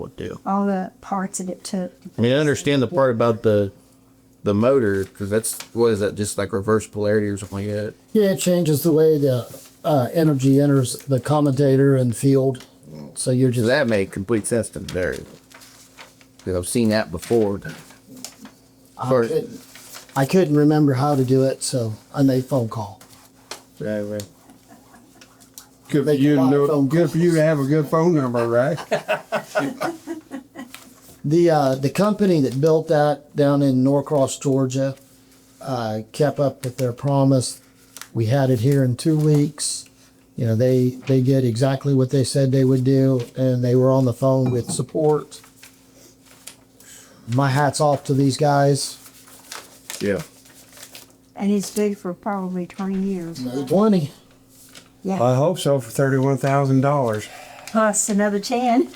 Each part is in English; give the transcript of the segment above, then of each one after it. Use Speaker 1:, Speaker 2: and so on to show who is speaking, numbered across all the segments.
Speaker 1: would do.
Speaker 2: all the parts that it took.
Speaker 1: I mean, I understand the part about the the motor because that's what is that just like reverse polarity or something like that.
Speaker 3: Yeah, it changes the way the uh, energy enters the commutator and field. So you're
Speaker 1: Does
Speaker 3: just
Speaker 1: that make complete sense to there? Because I've seen that before.
Speaker 3: I couldn't, I couldn't remember how to do it, so I made phone call.
Speaker 1: Right, right.
Speaker 4: Good for
Speaker 3: Make a
Speaker 4: you to
Speaker 3: lot of
Speaker 4: know,
Speaker 3: phone
Speaker 4: good for you to have a good phone number, right?
Speaker 3: The uh, the company that built that down in Norcross, Georgia, uh, kept up with their promise. We had it here in two weeks. You know, they they did exactly what they said they would do, and they were on the phone with support. My hat's off to these guys.
Speaker 1: Yeah.
Speaker 2: And it's due for probably 20 years.
Speaker 3: Twenty.
Speaker 2: Yeah.
Speaker 4: I hope so for thirty-one thousand dollars.
Speaker 2: Plus another 10.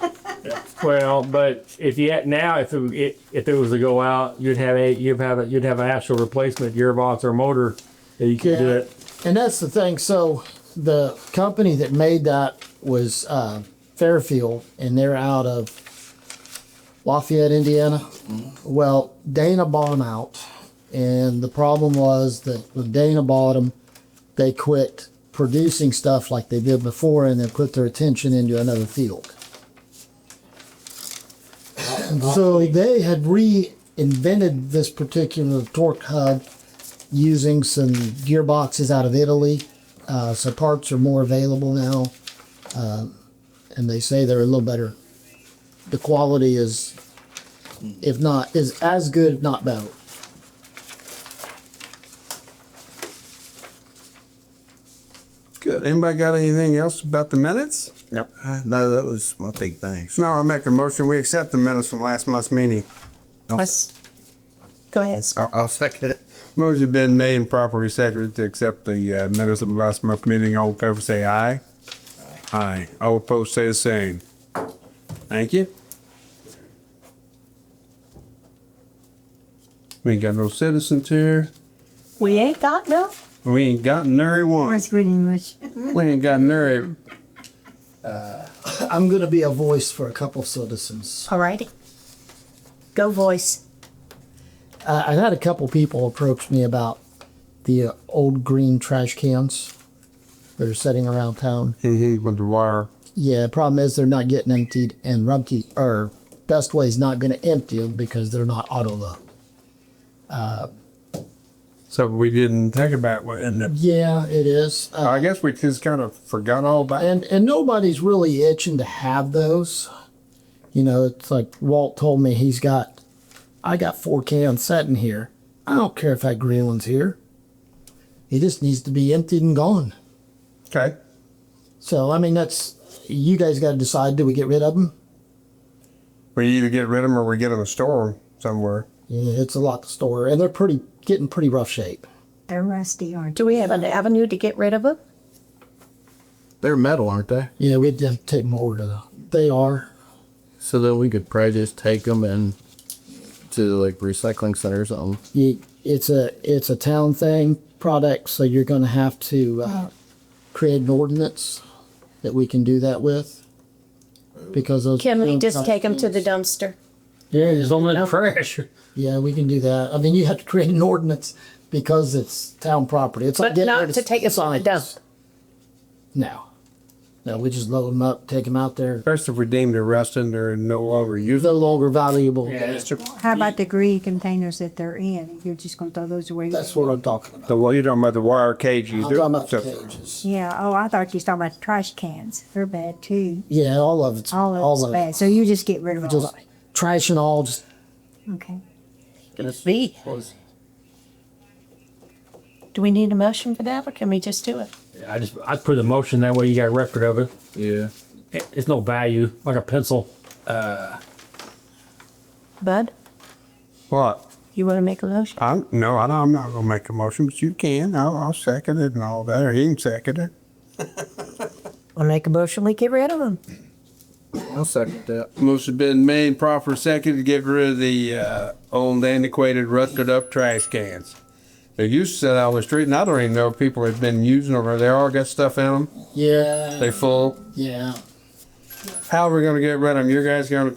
Speaker 5: Well, but if you had now, if it, it if it was to go out, you'd have a you'd have a, you'd have an actual replacement gearbox or motor that you could do
Speaker 3: Yeah.
Speaker 5: it.
Speaker 3: And that's the thing. So the company that made that was uh, Fairfield, and they're out of Lafayette, Indiana. Well, Dana bought them out, and the problem was that when Dana bought them, they quit producing stuff like they did before, and they put their attention into another field. So they had reinvented this particular torque hub using some gearboxes out of Italy. Uh, so parts are more available now, um, and they say they're a little better. The quality is, if not, is as good, if not better.
Speaker 4: Good. Anybody got anything else about the minutes?
Speaker 1: Yep.
Speaker 4: Uh, no, that was my big thing. So now I make a motion, we accept the minutes from last month's meeting.
Speaker 2: Go ahead.
Speaker 1: I'll, I'll second it.
Speaker 4: Motion been made and properly seconded to accept the uh, minutes of last month's meeting. All in favor, say aye. Aye. All opposed, say the same. Thank you. We ain't got no citizens here.
Speaker 2: We ain't got no.
Speaker 4: We ain't got nary one.
Speaker 2: That's pretty much.
Speaker 4: We ain't got nary.
Speaker 3: I'm going to be a voice for a couple citizens.
Speaker 6: Alrighty. Go voice.
Speaker 3: I, I've had a couple people approach me about the uh, old green trash cans that are sitting around town.
Speaker 4: Hee hee with the wire.
Speaker 3: Yeah, problem is they're not getting emptied, and Rumpke or Best Way's not going to empty them because they're not auto load.
Speaker 4: So we didn't think about what in the.
Speaker 3: Yeah, it is. Uh,
Speaker 4: I guess we just kind of forgot all about it.
Speaker 3: and and nobody's really itching to have those. You know, it's like Walt told me he's got, I got four cans sitting here. I don't care if that green one's here. It just needs to be emptied and gone.
Speaker 4: Okay.
Speaker 3: So I mean, that's you guys got to decide. Do we get rid of them?
Speaker 4: We either get rid of them or we get them and store them somewhere.
Speaker 3: Yeah, it's a lot to store, and they're pretty getting pretty rough shape.
Speaker 2: They're rusty, aren't
Speaker 6: Do we have an avenue to get rid of them?
Speaker 1: They're metal, aren't they?
Speaker 3: Yeah, we'd have to take more to. They are.
Speaker 1: So then we could probably just take them and to like recycling center or something.
Speaker 3: you, it's a it's a town thing product, so you're going to have to
Speaker 6: Oh.
Speaker 3: uh, create an ordinance that we can do that with. Because those
Speaker 6: Can we
Speaker 3: those
Speaker 6: just
Speaker 3: kind-
Speaker 6: take them to the dumpster?
Speaker 3: Yeah, there's only
Speaker 7: Well, that trash.
Speaker 3: yeah, we can do that. I mean, you have to create an ordinance because it's town property. It's like
Speaker 6: But
Speaker 3: getting
Speaker 6: not
Speaker 3: rid of
Speaker 6: to take it to the
Speaker 3: signs.
Speaker 6: dump.
Speaker 3: No, no, we just load them up, take them out there.
Speaker 4: First, if we deemed it rusting, they're no longer
Speaker 3: They're
Speaker 4: usable.
Speaker 3: no longer valuable.
Speaker 2: How about the green containers that they're in? You're just going to throw those away?
Speaker 3: That's what I'm talking about.
Speaker 4: The, well, you're talking about the wire cage. You
Speaker 3: I'm
Speaker 4: do-
Speaker 3: talking about the
Speaker 4: so-
Speaker 3: cages.
Speaker 2: Yeah. Oh, I thought you was talking about the trash cans. They're bad too.
Speaker 3: Yeah, all of it's
Speaker 2: All of it's bad. So you just get rid of
Speaker 3: Just
Speaker 2: all.
Speaker 3: trash and all, just
Speaker 2: Okay.
Speaker 6: Gonna be. Do we need a motion for that or can we just do it?
Speaker 5: I just I put a motion that way you got a record of it.
Speaker 1: Yeah.
Speaker 5: it. It's no value like a pencil.
Speaker 6: Bud,
Speaker 4: What?
Speaker 6: you wanna make a motion?
Speaker 4: i no, I don't, I'm not gonna make a motion, but you can. I'll, I'll second it and all that, or he can second it.
Speaker 6: I'll make a motion, we get rid of them.
Speaker 1: I'll second that.
Speaker 4: Motion been made, proper second to get rid of the, uh, old antiquated rusted up trash cans. They used to sit out on the street and I don't even know if people have been using them or they all got stuff in them.
Speaker 3: yeah,
Speaker 4: They full.
Speaker 3: yeah.
Speaker 4: How are we gonna get rid of them? You guys gonna